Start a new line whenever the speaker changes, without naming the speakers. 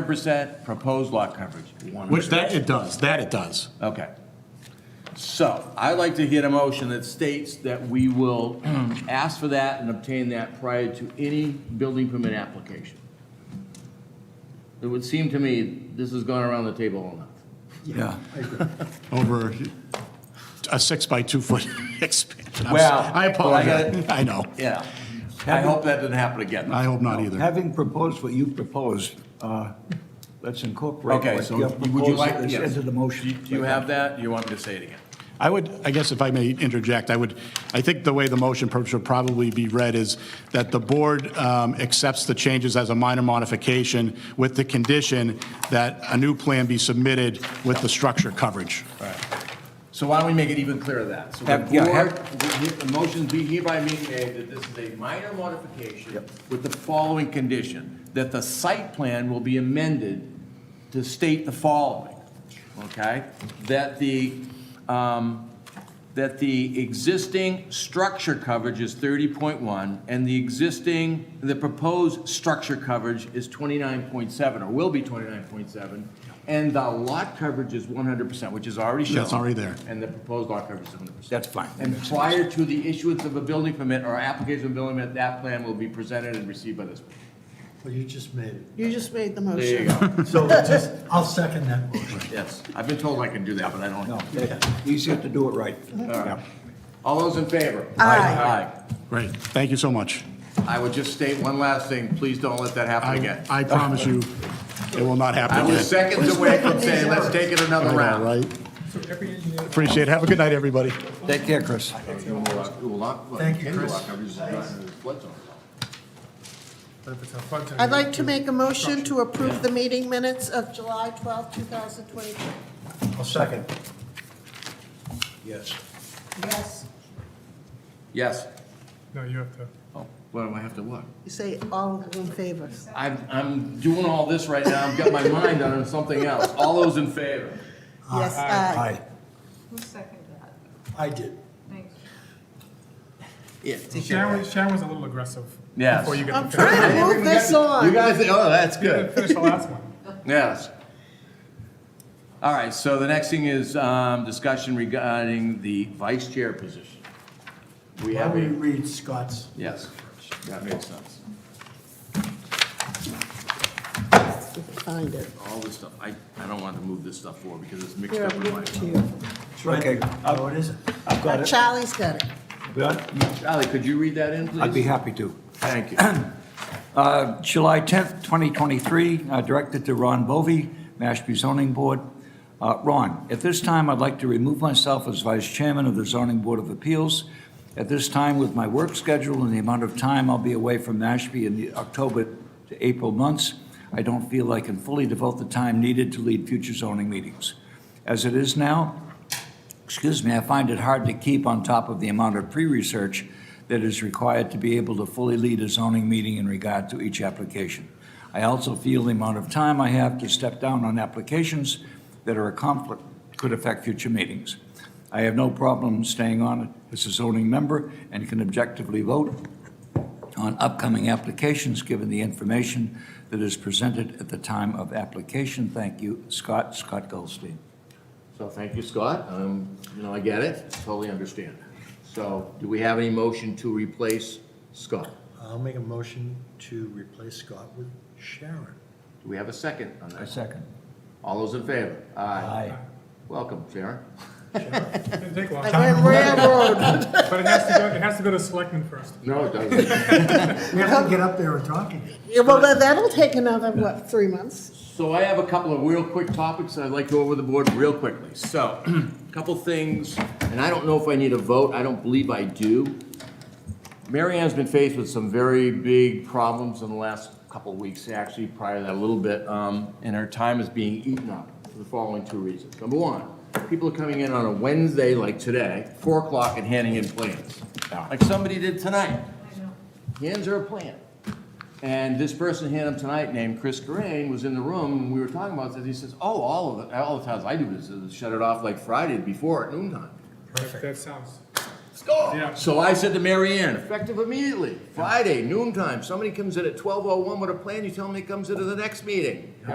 100% proposed lot coverage.
Which that it does, that it does.
Okay. So I'd like to hit a motion that states that we will ask for that and obtain that prior to any building permit application. It would seem to me this has gone around the table enough.
Yeah.
Over a six by two foot expansion. I'm s-
Well,
I
but I got-
apologize. I know.
Yeah. I hope that didn't happen again.
I hope not either.
Having proposed what you proposed, uh, let's incorporate
Okay,
what
so
your
would you
proposal
like,
is
yes.
into the
Do
motion.
do you have that? Do you want me to say it again?
I would, I guess if I may interject, I would, I think the way the motion pro- should probably be read is that the board um, accepts the changes as a minor modification with the condition that a new plan be submitted with the structure coverage.
So why don't we make it even clearer that? So the
Have- yeah, have-
board, the the motion be hereby being made that this is a minor modification with the following condition, that the site plan will be amended to state the following, okay? That the, um, that the existing structure coverage is thirty point one, and the existing, the proposed structure coverage is twenty-nine point seven, or will be twenty-nine point seven, and the lot coverage is one hundred percent, which is already shown.
That's already there.
And the proposed lot coverage is one hundred percent.
That's fine.
And prior to the issuance of a building permit or application of a building permit, that plan will be presented and received by this.
Well, you just made it.
You just made the
There you
motion.
go,
So just, I'll second that motion.
yes. I've been told I can do that, but I don't.
No, that- easier to do it right.
All those in favor?
Aye.
Aye.
Great, thank you so much.
I would just state one last thing, please don't let that happen
I,
again.
I promise you, it will not happen
I
again.
was seconds away from saying, let's take it another
I know,
round.
right? Appreciate it. Have a good night, everybody.
Take care, Chris.
Thank you, Chris.
I'd like to make a motion to approve the meeting minutes of July twelfth, two 2022.
I'll second.
Yes.
Yes,
Yes.
No, you have to.
Oh, What, do I have to what?
you say all in favor.
I'm, I'm doing all this right now, I've got my mind on something else. All those in favor?
Yes, aye.
Hi.
Who seconded that?
I did.
Thanks.
Yeah.
Sharon, was- Sharon was a little aggressive.
Yes.
Before you
I'm
get to finish-
trying to move this
You
on.
guys, oh, that's good.
finish the last one.
Yes. All right, so the next thing is um, discussion regarding the vice chair position. We
Why
have
don't
a,
we read Scott's?
yes, that makes sense.
Find it.
All this stuff, I, I don't want to move this stuff forward because it's mixed
Here,
up
I'll
with
give
my.
it to you.
That's right.
Okay.
No, it isn't.
I've got it.
Charlie's got it.
Charlie, could you read that in, please?
I'd be happy to.
Thank you.
Uh, July 10th, 2023, uh, directed to Ron Bovee, Mashpee Zoning Board. Uh, Ron, at this time, I'd like to remove myself as Vice Chairman of the Zoning Board of Appeals. At this time, with my work schedule and the amount of time I'll be away from Mashpee in the October to April months, I don't feel I can fully devote the time needed to lead future zoning meetings. As it is now, excuse me, I find it hard to keep on top of the amount of pre-research that is required to be able to fully lead a zoning meeting in regard to each application. I also feel the amount of time I have to step down on applications that are a conflict could affect future meetings. I have no problem staying on as a zoning member and can objectively vote on upcoming applications, given the information that is presented at the time of application. Thank you, Scott, Scott Goldstein.
So thank you, Scott. Um, You know, I get it, totally understand. So do we have any motion to replace Scott?
I'll make a motion to replace Scott with Sharon.
Do we have a second on that?
second.
All those in favor? Aye.
Aye.
Welcome, Sharon.
Didn't take long,
I went railroad.
but it has to go, it has to go to selectmen first.
No, it doesn't.
We have to get up there and talk again.
Yeah, Well, that- that'll take another, what, three months?
So I have a couple of real quick topics that I'd like to go over the board real quickly. So, a couple things, and I don't know if I need a vote, I don't believe I do. Mary Ann's been faced with some very big problems in the last couple of weeks, actually, prior to that a little bit, um, and her time is being eaten up for the following two reasons. Number one, people are coming in on a Wednesday like today, four o'clock, and handing in plans, like somebody did tonight. hands her a plan. And this person handed him tonight, named Chris Corain, was in the room, and we were talking about this, he says, oh, all of it, all the times I do this is shut it off like Friday before at noon time.
That that sounds,
Let's go.
Yeah.
So I said to Mary Ann, effective immediately, Friday, noon time, somebody comes in at twelve oh one with a plan, you tell them it comes into the next meeting.